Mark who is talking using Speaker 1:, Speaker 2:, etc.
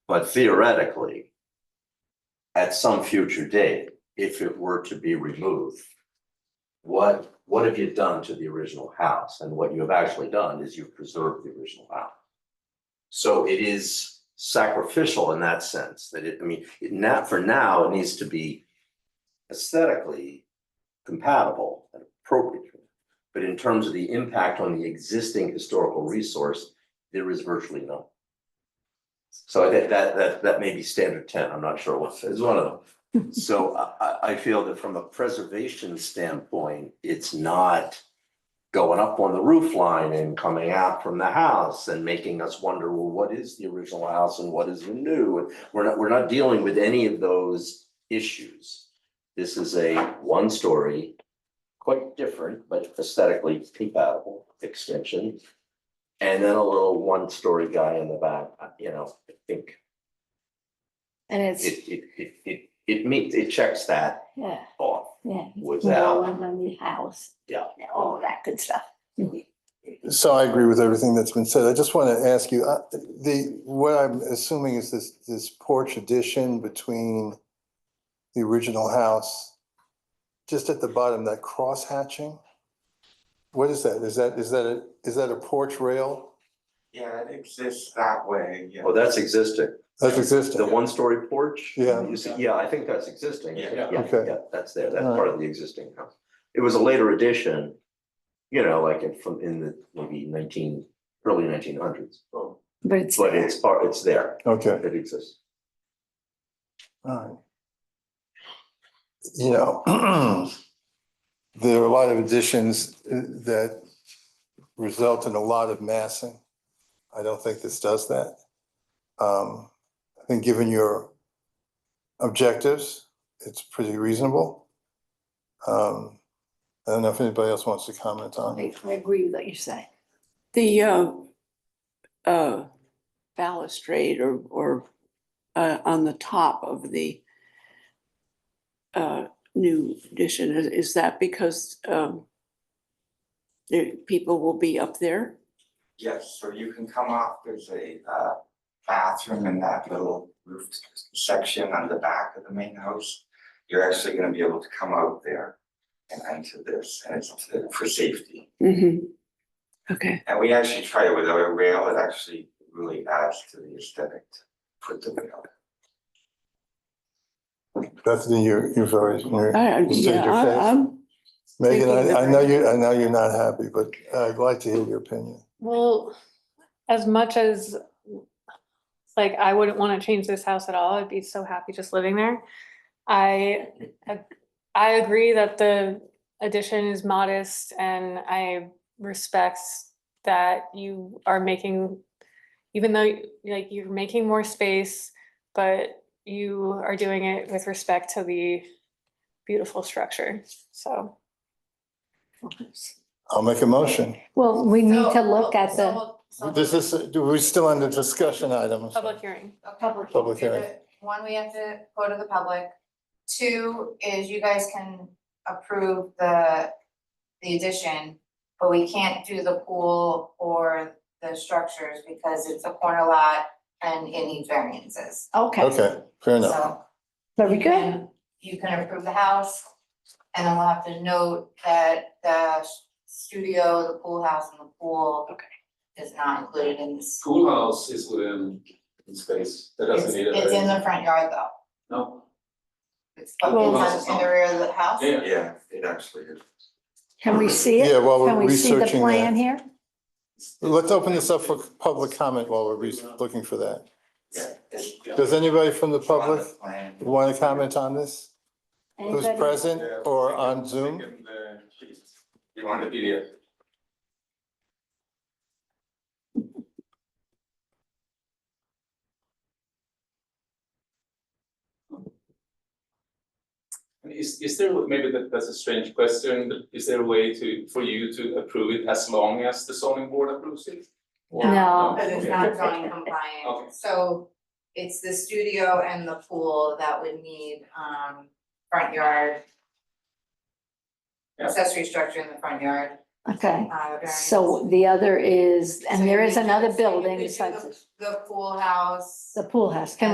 Speaker 1: But theoretically, at some future date, if it were to be removed, what, what have you done to the original house? And what you have actually done is you've preserved the original house. So it is sacrificial in that sense, that it, I mean, it not, for now, it needs to be aesthetically compatible and appropriate. But in terms of the impact on the existing historical resource, there is virtually none. So that, that, that, that may be standard ten, I'm not sure what, it's one of them. So I, I, I feel that from a preservation standpoint, it's not going up on the roof line and coming out from the house and making us wonder, well, what is the original house and what is the new? And We're not, we're not dealing with any of those issues. This is a one-story, quite different, but aesthetically compatible extension. And then a little one-story guy in the back, uh, you know, I think
Speaker 2: And it's,
Speaker 1: it, it, it, it, it meets, it checks that
Speaker 2: yeah,
Speaker 1: off
Speaker 2: yeah.
Speaker 1: without.
Speaker 2: On the house.
Speaker 1: Yeah.
Speaker 2: All that good stuff.
Speaker 3: So I agree with everything that's been said. I just want to ask you, uh, the, what I'm assuming is this, this porch addition between the original house, just at the bottom, that cross hatching? What is that? Is that, is that, a is that a porch rail?
Speaker 4: Yeah, it exists that way, yeah.
Speaker 1: Oh, that's existing.
Speaker 3: That's existing?
Speaker 1: The one-story porch?
Speaker 3: Yeah.
Speaker 1: You see, yeah, I think that's existing.
Speaker 4: Yeah.
Speaker 3: Okay.
Speaker 1: Yeah, that's there. That's part of the existing house. It was a later addition, you know, like in from in the maybe nineteen, early nineteen hundreds. But
Speaker 2: But it's,
Speaker 1: it's part, it's there.
Speaker 3: Okay,
Speaker 1: It exists.
Speaker 3: all right. You know, there are a lot of additions uh, that result in a lot of massing. I don't think this does that. Um, I think given your objectives, it's pretty reasonable. Um, I don't know if anybody else wants to comment on it.
Speaker 2: I I agree with what you're saying.
Speaker 5: The uh, uh, balustrade or, or uh, on the top of the uh, new addition, is- is that because um, the people will be up there?
Speaker 4: Yes, so you can come off, there's a uh bathroom in that little roof section on the back of the main house. You're actually gonna be able to come out there and enter this, and it's for safety.
Speaker 5: Mm-hmm. Okay,
Speaker 4: And we actually try it without a rail, it actually really adds to the aesthetic to put the rail.
Speaker 3: Bethany, you're, you're very, you're,
Speaker 5: I, I-
Speaker 3: Just take
Speaker 5: yeah,
Speaker 3: your face.
Speaker 5: I- I'm,
Speaker 3: Megan,
Speaker 5: thinking
Speaker 3: I, I know
Speaker 5: different.
Speaker 3: you, I know you're not happy, but I'd like to hear your opinion.
Speaker 6: Well, as much as, like, I wouldn't wanna change this house at all, I'd be so happy just living there. I, I agree that the addition is modest and I respect that you are making, even though, like, you're making more space, but you are doing it with respect to the beautiful structure, so.
Speaker 3: I'll make a motion.
Speaker 7: Well, we need to look at the.
Speaker 3: This is, do we still under discussion items?
Speaker 6: Public hearing.
Speaker 8: Public.
Speaker 3: Public hearing.
Speaker 8: One, we have to go to the public. Two is you guys can approve the, the addition, but we can't do the pool or the structures because it's a corner lot and it needs variances.
Speaker 2: Okay,
Speaker 3: Okay, fair enough.
Speaker 8: So
Speaker 2: very
Speaker 8: you
Speaker 2: good.
Speaker 8: can- You can approve the house and then we'll have to note that the studio, the pool house and the pool
Speaker 5: Okay.
Speaker 8: is not included in this.
Speaker 9: Pool house is within in space, that doesn't need a.
Speaker 8: It's- It's in the front yard though.
Speaker 9: No,
Speaker 8: It's
Speaker 9: Well-
Speaker 8: it's in the rear of the house.
Speaker 9: yeah,
Speaker 4: Yeah, it actually is.
Speaker 2: Can we see it?
Speaker 3: Yeah, while
Speaker 7: Can
Speaker 3: we're
Speaker 7: we see the
Speaker 3: researching
Speaker 7: plan
Speaker 3: that.
Speaker 7: here?
Speaker 3: Let's open this up for public comment while we're re- looking for that.
Speaker 4: Yeah, it's
Speaker 3: Does anybody from the
Speaker 4: it's on the
Speaker 3: public
Speaker 4: plan.
Speaker 3: want to comment on this? Who's
Speaker 7: Anybody?
Speaker 3: present or on Zoom?
Speaker 9: Second, uh, sheet. You want the PDF? And Is is there, maybe that that's a strange question, but is there a way to, for you to approve it as long as the zoning board approves it? Or-
Speaker 7: No.
Speaker 8: Because it's
Speaker 9: okay.
Speaker 8: not zoning
Speaker 9: Okay.
Speaker 8: compliant, so it's the studio and the pool that would need um front yard.
Speaker 9: Yeah.
Speaker 8: Accessory structure in the front yard,
Speaker 2: Okay,
Speaker 8: uh, variance.
Speaker 2: so the other is,
Speaker 8: So
Speaker 2: and there
Speaker 8: you
Speaker 2: is
Speaker 8: could do-
Speaker 2: another
Speaker 8: so you
Speaker 2: building
Speaker 8: could do
Speaker 2: besides
Speaker 8: The the pool house.
Speaker 2: the pool house. Can